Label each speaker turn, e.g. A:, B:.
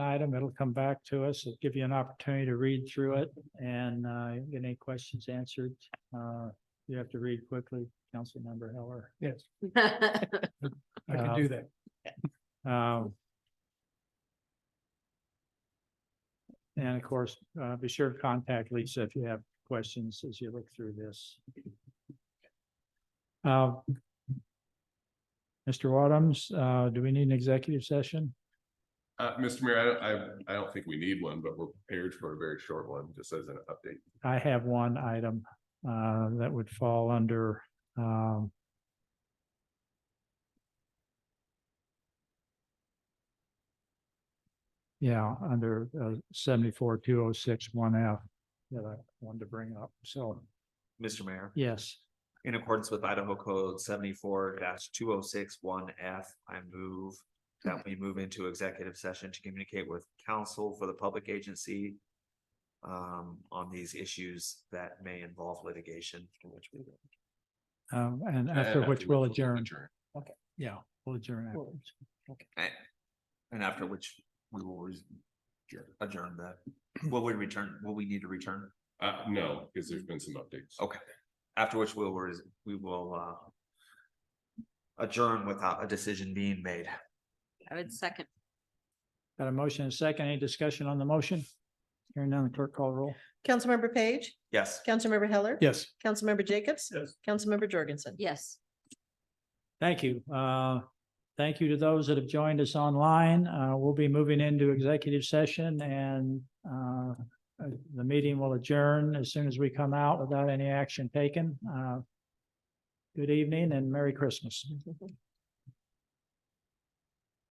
A: item. It'll come back to us. It'll give you an opportunity to read through it and uh, get any questions answered. Uh, You have to read quickly, Councilmember Heller.
B: Yes,
C: Thank
B: I can do that.
A: Um, And of course, uh, be sure to contact Lisa if you have questions as you look through this. Uh, Mr. Wadums, uh, do we need an executive session?
D: Uh, Mr. Mayor, I don't, I, I don't think we need one, but we're prepared for a very short one, just as an update.
A: I have one item uh, that would fall under um, yeah, under uh, seventy-four two oh six one F that I wanted to bring up. So,
E: Mr. Mayor,
A: yes,
E: in accordance with Idaho Code seventy-four two oh six one F, I move that we move into executive session to communicate with counsel for the public agency um, on these issues that may involve litigation.
A: um, and after which we'll adjourn.
D: Adjourn.
A: Yeah, we'll adjourn. afterwards.
E: And after which we will res- adjourn that. Will we return, will we need to return?
D: Uh, no, because there's been some updates.
E: Okay, after which we'll, res- we will uh adjourn without a decision being made.
C: I would second.
A: Got a motion and a second. Any discussion on the motion? Hearing none, clerk call roll.
F: Councilmember Page,
E: Yes.
F: Councilmember Heller.
B: Yes.
F: Councilmember Jacobs.
B: Yes.
F: Councilmember Jorgensen.
C: Yes.
A: Thank you. Uh, Thank you to those that have joined us online. Uh, We'll be moving into executive session and uh, uh, the meeting will adjourn as soon as we come out without any action taken. Uh, Good evening and Merry Christmas.